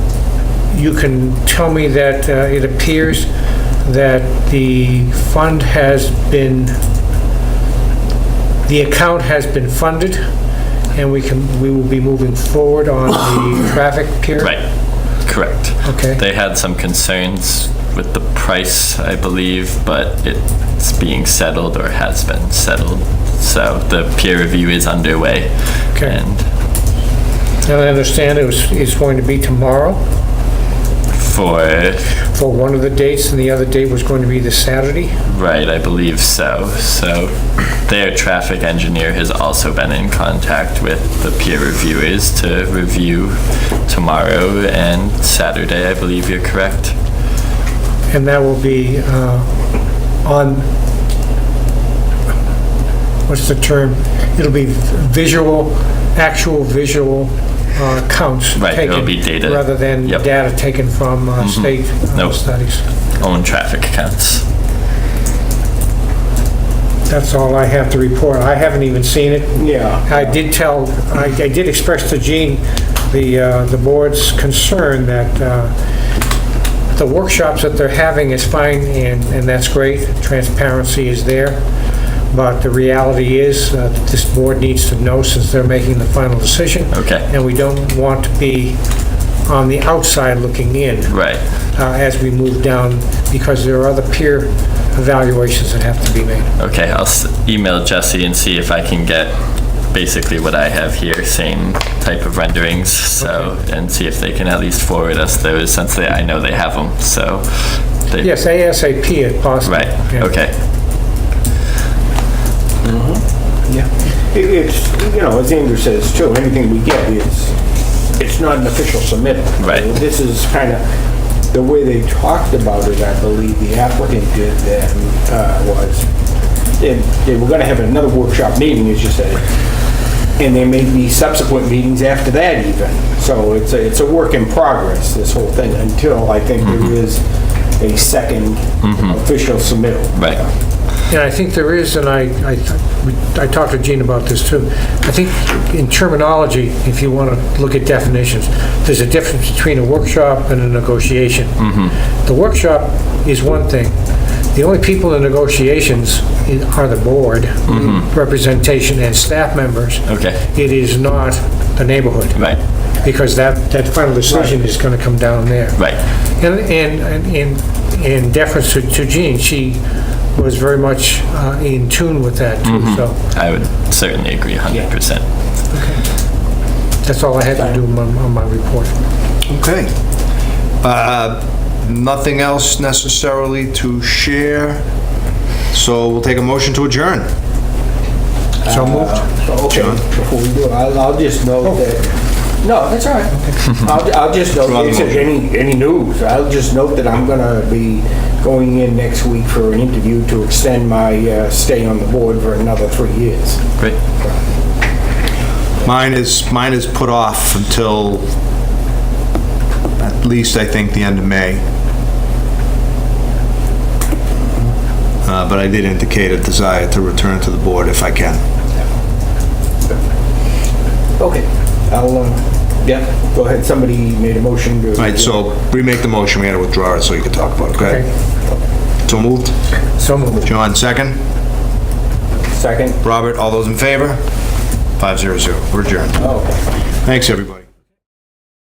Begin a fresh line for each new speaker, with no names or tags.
you can tell me that uh, it appears that the fund has been, the account has been funded, and we can, we will be moving forward on the traffic pier?
Right, correct.
Okay.
They had some concerns with the price, I believe, but it's being settled or has been settled. So the peer review is underway.
Okay.
And
Now, I understand it was, it's going to be tomorrow
for,
for one of the dates, and the other date was going to be the Saturday?
right, I believe so. So their traffic engineer has also been in contact with the peer reviewers to review tomorrow and Saturday, I believe you're correct.
And that will be uh, on, what's the term? It'll be visual, actual visual uh, counts taken.
Right, it'll be data.
Rather than
Yep. Mm-hmm.
data taken from uh, state uh,
Nope.
studies.
Own traffic counts.
That's all I have to report. I haven't even seen it.
Yeah.
I did tell, I I did express to Gene the, uh, the board's concern that uh, the workshops that they're having is fine, and, and that's great, transparency is there, but the reality is, uh, that this board needs to know since they're making the final decision,
Okay,
and we don't want to be on the outside looking in
right.
uh, as we move down, because there are other peer evaluations that have to be made.
Okay, I'll s- email Jesse and see if I can get basically what I have here, same type of renderings, so, and see if they can at least forward us those, since they, I know they have them, so. they-
Yes, ASAP if possible.
Right,
Yeah.
okay,
It- It's, you know, as Andrew says too, anything we get is, it's not an official submittal.
Right.
This is kind of, the way they talked about it, I believe the applicant did then, uh, was, they they were going to have another workshop meeting, as you said, and there may be subsequent meetings after that even. So it's a, it's a work in progress, this whole thing, until I think there is a second official submittal.
right,
And I think there is, and I, I we- I talked to Gene about this too, I think in terminology, if you want to look at definitions, there's a difference between a workshop and a negotiation.
Mm-hmm.
The workshop is one thing. The only people in negotiations i- are the board, representation, and staff members.
Mm-hmm. Okay.
It is not the neighborhood.
right,
Because that, that final decision is going to come down there.
right,
And, and, and in deference to to Jean, she was very much uh, in tune with that too, so
I would certainly agree hundred percent.
that's all I had to do on my- on my report.
Okay. Uh, Nothing else necessarily to share, so we'll take a motion to adjourn.
So moved.
Okay,
John? Oh.
before we do, I'll, I'll just note that, no, that's all right. I'll, I'll just note, if there's any, any news, I'll just note that I'm gonna be going in next week for an interview to extend my uh, stay on the board for another three years.
Great,
Mine is, mine is put off until at least, I think, the end of May. Uh, But I did indicate a desire to return to the board if I can.
Okay, I'll, uh, yeah, go ahead, somebody made a motion to.
All right, so remake the motion, we had to withdraw it so you could talk about it, go ahead. So moved.
So moved.
John, second.
Second,
Robert, all those in favor? 500, we're adjourned.
oh.
Thanks, everybody.